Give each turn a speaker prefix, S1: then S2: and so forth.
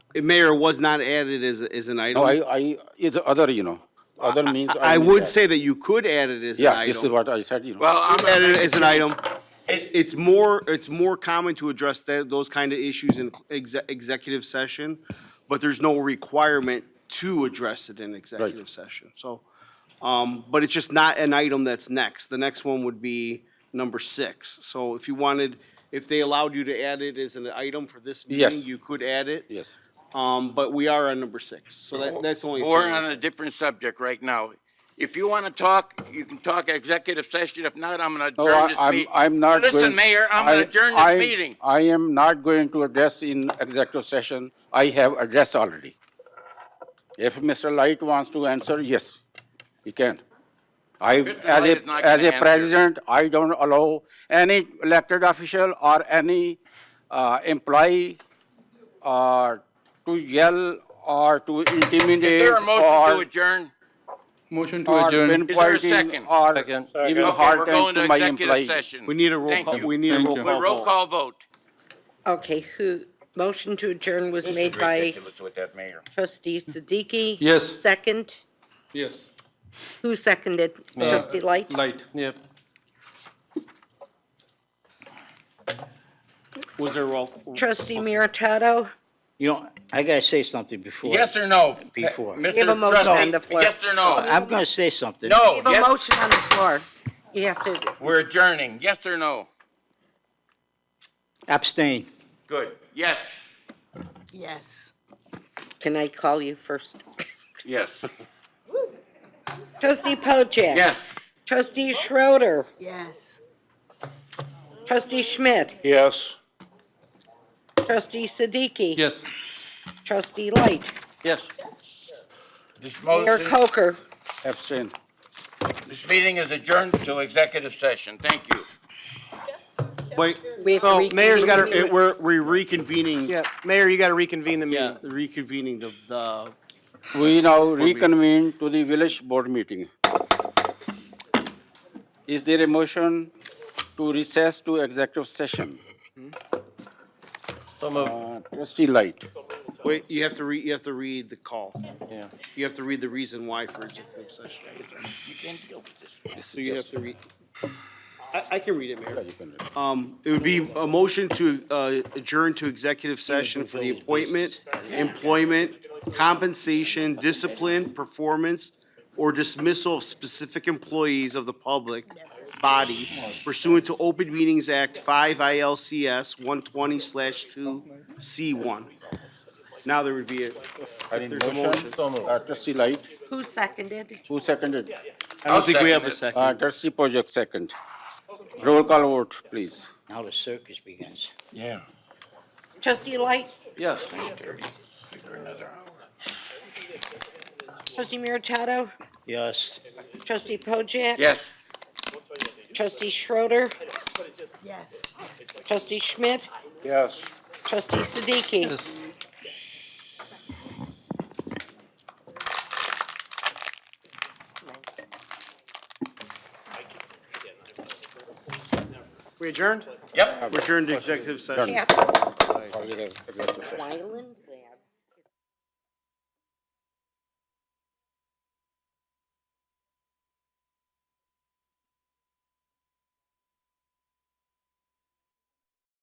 S1: Mayor was not added as, as an
S2: No, Oh, I,
S1: item.
S2: I, it's other, you know, other means.
S1: I
S2: mean
S1: would
S2: that.
S1: say that you could add it as an item.
S2: Yeah, this is what I said, you know.
S1: Well, I'm at it as an item. It- It's more, it's more common to address that, those kind of issues in exe- executive session, but there's no requirement to address it in executive session, so. Um, but it's just not an item that's next. The next one would be number six. So if you wanted, if they allowed you to add it as an item for this meeting,
S2: Yes.
S1: you could add it.
S2: Yes.
S1: Um, but we are on number six, so that, that's only.
S3: Or on a different subject right now. If you want to talk, you can talk executive session. If not, I'm going to
S2: No,
S3: adjourn
S2: I-
S3: this
S2: I'm-
S3: meeting.
S2: I'm not going.
S3: Listen, Mayor, I'm going
S2: I-
S3: to adjourn
S2: I-
S3: this meeting.
S2: I am not going to address in executive session. I have addressed already. If Mr. Light wants to answer, yes, he can. I,
S3: Mr.
S2: as
S3: Light is
S2: a,
S3: not
S2: as a
S3: gonna answer.
S2: president, I don't allow any elected official or any uh, employee uh, to yell or to intimidate.
S3: Is there a motion to
S2: or-
S3: adjourn?
S4: Motion to
S2: Or
S4: adjourn.
S3: Is there a
S2: inquiring
S3: second?
S2: or
S5: Second.
S2: giving
S3: Okay,
S2: hard
S3: we're
S2: time
S3: going
S2: to
S3: to
S2: my
S3: executive
S2: employee.
S3: session.
S1: We need a roll
S3: Thank
S1: call,
S3: you.
S1: we need a
S4: Thank
S1: roll
S4: you.
S1: call.
S3: Well, roll
S1: vote.
S3: call vote.
S6: Okay, who, motion to adjourn was made by
S3: with that, Mayor.
S6: trustee Siddiqui.
S4: Yes.
S6: Second,
S4: Yes.
S6: who seconded? Trustee Light?
S4: Light.
S5: Yep.
S1: Was there a roll?
S6: Trustee Meritato?
S7: You know, I gotta say something before.
S3: Yes or no?
S7: Before.
S3: Mr.
S6: Give a motion
S3: Trustee,
S6: on the floor.
S3: Yes or
S1: Uh,
S3: no?
S7: I'm gonna say something.
S3: No,
S6: We have a
S3: yes,
S6: motion on the floor. You have to,
S3: we're adjourning. Yes or no?
S7: Abstain.
S3: Good. Yes,
S6: yes. Can I call you first?
S3: yes,
S6: Trustee Pojek?
S3: yes.
S6: Trustee Schroeder? Yes. Trustee Schmidt?
S5: Yes.
S6: Trustee Siddiqui?
S4: Yes.
S6: Trustee Light?
S3: Yes. This
S6: Mayor
S3: motion,
S6: Coker?
S2: Abstain.
S3: this meeting is adjourned to executive session. Thank you.
S1: Wait,
S6: We have to
S1: so
S6: reconvene
S1: Oh, mayor's got,
S6: the meeting.
S1: we're, we're reconvening.
S8: Yeah, Mayor, you gotta reconvene the meeting.
S1: Yeah, reconvening the, the,
S2: We now reconvene to the village board meeting. Is there a motion to recess to executive session?
S5: So moved.
S2: Uh, Trustee Light.
S1: wait, you have to re, you have to read the call.
S5: Yeah.
S1: You have to read the reason why for executive session.
S3: You can't deal with this.
S1: So you have to read. I, I can read it, Mayor.
S2: You can read.
S1: Um, it would be a motion to, uh, adjourn to executive session for the appointment, employment, compensation, discipline, performance, or dismissal of specific employees of the public body pursuant to Open Meetings Act five ILCS one twenty slash two C one. Now there would be a,
S2: I need
S1: there's a
S2: motion.
S5: So moved.
S2: Uh, Trustee Light,
S6: Who seconded?
S2: who seconded?
S1: I don't think we have a
S3: second
S1: second.
S2: Uh, Trustee Pojek second. Roll call vote, please.
S7: Now the circus begins.
S3: Yeah.
S6: Trustee Light?
S5: Yes.
S6: Trustee Meritato?
S7: Yes.
S6: Trustee Pojek?
S3: Yes.
S6: Trustee Schroeder? Yes. Trustee Schmidt?
S5: Yes.
S6: Trustee Siddiqui?
S4: Yes.
S8: We adjourned?
S3: Yep.
S1: Return to executive session.
S6: Wyland?